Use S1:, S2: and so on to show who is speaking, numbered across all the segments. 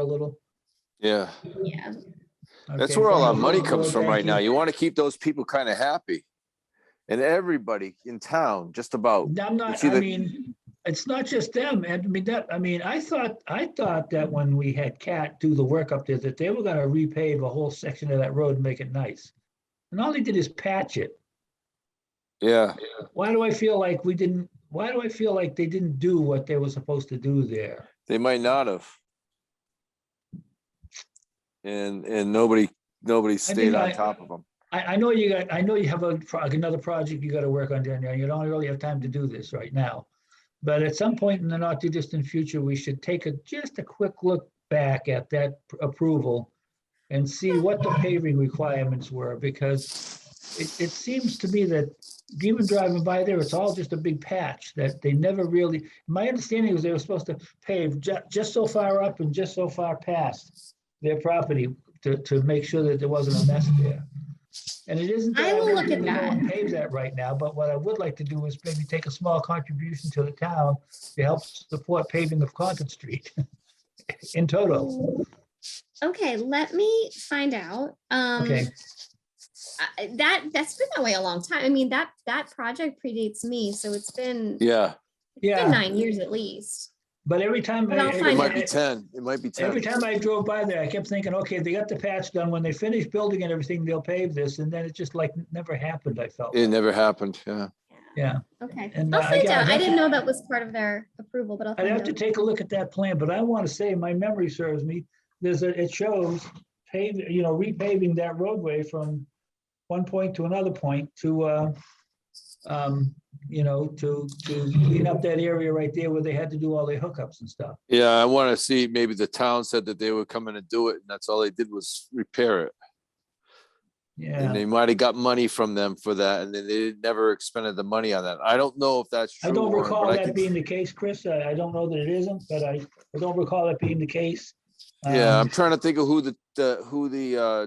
S1: a little.
S2: Yeah,
S3: Yeah,
S2: that's
S1: Okay,
S2: where all our
S1: thank you.
S2: money comes from
S1: Thank
S2: right now.
S1: you.
S2: You want to keep those people kind of happy. And everybody in town, just about.
S1: I'm not,
S2: see
S1: I
S2: the-
S1: mean, it's not just them. And I mean, that, I mean, I thought, I thought that when we had Cat do the work up there, that they were gonna repave a whole section of that road and make it nice. And all they did is patch it.
S2: Yeah,
S1: Why do I feel like we didn't, why do I feel like they didn't do what they were supposed to do there?
S2: they might not have. And, and nobody, nobody stayed on
S1: I-
S2: top of them.
S1: I, I know you got, I know you have a, pro- another project you gotta work on down there. You don't really have time to do this right now. But at some point in the not too distant future, we should take a, just a quick look back at that pr- approval and see what the paving requirements were, because it, it seems to me that even driving by there, it's all just a big patch that they never really, my understanding was they were supposed to pave ju- just so far up and just so far past their property to, to make sure that there wasn't a mess there. And it isn't. that
S3: I will
S1: won't
S3: look at
S1: really go and Pave that right now, but what I would like to do is maybe take a small contribution to the town to help support paving of Concord Street in total.
S3: okay, let me find out. Um,
S1: Okay,
S3: I- that, that's been that way a long time. I mean, that, that project predates me, so it's been, it's
S2: Yeah,
S1: yeah.
S3: been nine years at least.
S1: but every time.
S3: But
S1: I-
S3: I'll
S2: it
S3: find
S2: might be
S1: I-
S2: ten, it might be
S1: Every
S2: ten.
S1: time I drove by there, I kept thinking, okay, they got the patch done. When they finish building and everything, they'll pave this. And then it just like never happened, I felt.
S2: It never happened, yeah.
S1: Yeah,
S3: Okay,
S1: And,
S3: I'll
S1: uh,
S3: find
S1: again, I'd
S3: out. I
S1: have
S3: didn't
S1: to-
S3: know that was part of their approval, but I'll
S1: I'd
S3: find
S1: have to
S3: out.
S1: take a look at that plan, but I want to say, my memory serves me, there's a, it shows pave, you know, repaving that roadway from one point to another point to, uh, um, you know, to, to clean up that area right there where they had to do all their hookups and stuff.
S2: Yeah, I want to see, maybe the town said that they were coming to do it and that's all they did was repair it. And
S1: Yeah,
S2: they might have got money from them for that and then they never expended the money on that. I don't know if that's true.
S1: I don't
S2: Warren,
S1: recall
S2: but I
S1: that
S2: can-
S1: being the case, Chris. I, I don't know that it isn't, but I, I don't recall it being the case.
S2: Yeah,
S1: Um,
S2: I'm trying to think of who the, the, who the, uh,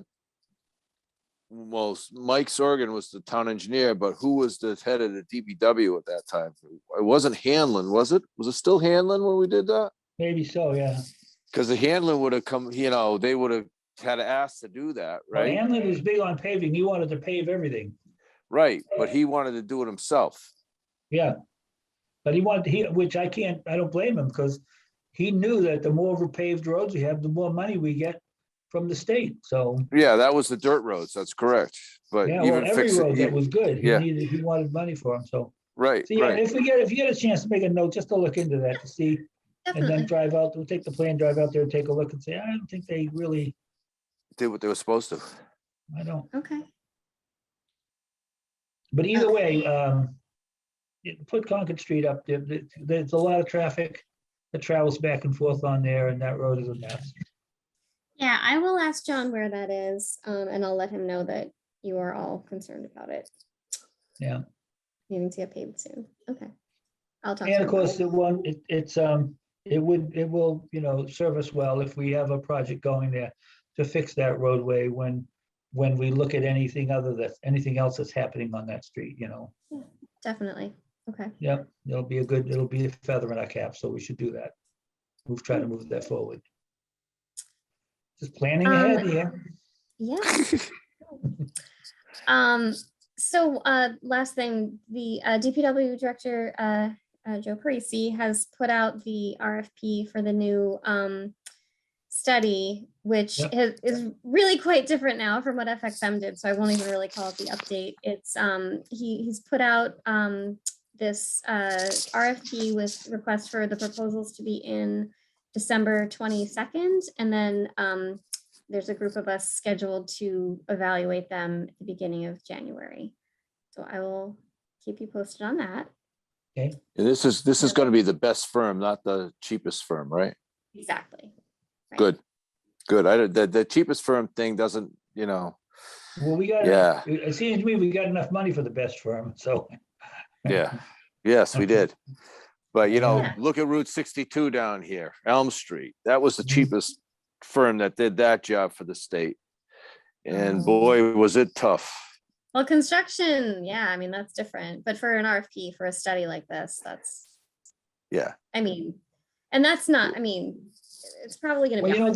S2: most, Mike Sorgan was the town engineer, but who was the head of the DBW at that time? It wasn't Hanlon, was it? Was it still Hanlon when we did that?
S1: Maybe so, yeah.
S2: Because the Hanlon would have come, you know, they would have had asked to do that,
S1: Well,
S2: right?
S1: Hamlin was big on paving. He wanted to pave everything.
S2: Right, but he wanted to do it himself.
S1: Yeah. But he wanted, he, which I can't, I don't blame him because he knew that the more paved roads we have, the more money we get from the state. So,
S2: Yeah, that was the dirt roads, that's correct, but
S1: yeah, well,
S2: even
S1: every
S2: fix
S1: road
S2: it,
S1: that
S2: e-
S1: was good, he
S2: yeah.
S1: needed, he wanted money for them. So,
S2: right,
S1: so yeah,
S2: right.
S1: if we get, if you get a chance to make a note, just to look into that to see, and then
S3: Definitely.
S1: drive out, we'll take the plan, drive out there and take a look and say, I don't think they really,
S2: Did what they were supposed to.
S1: I don't,
S3: Okay,
S1: but either way, um, it- put Concord Street up there. There- There's a lot of traffic that travels back and forth on there and that road is a mess.
S3: yeah, I will ask John where that is, um, and I'll let him know that you are all concerned about it.
S1: Yeah.
S3: Needing to get paid soon, okay. I'll talk. to
S1: And
S3: him
S1: of
S3: about
S1: course,
S3: it.
S1: the one, it, it's, um, it would, it will, you know, serve us well if we have a project going there to fix that roadway when, when we look at anything other that's, anything else that's happening on that street, you know?
S3: Definitely, okay,
S1: Yep, it'll be a good, it'll be a feather in our cap, so we should do that. We've tried to move that forward. Just planning ahead
S3: Um,
S1: here.
S3: yeah. Um, so, uh, last thing, the, uh, DPW Director, uh, uh, Joe Parisi has put out the RFP for the new, um, study, which
S1: Yep.
S3: is, is really quite different now from what FXM did, so I won't even really call it the update. It's, um, he, he's put out, um, this, uh, RFP with requests for the proposals to be in December twenty-second, and then, um, there's a group of us scheduled to evaluate them at the beginning of January. So I will keep you posted on that.
S2: And this is, this is gonna be the best firm, not the cheapest firm, right?
S3: Exactly. Right.
S2: Good, good. I, don't- the, the cheapest firm thing doesn't, you know,
S1: Well, we got,
S2: yeah,
S1: it it seems to me we got enough money for the best firm, so.
S2: yeah. Yes, we did. But you know,
S3: Yeah.
S2: look at Route sixty-two down here, Elm Street. That was the
S1: Mhm.
S2: cheapest firm that did that job for the state. And
S3: Oh.
S2: boy, was it tough.
S3: Well, construction, yeah, I mean, that's different, but for an RFP, for a study like this, that's,
S2: Yeah.
S3: I mean, and that's not, I mean, it's probably gonna
S1: Well,
S3: be.
S1: you know,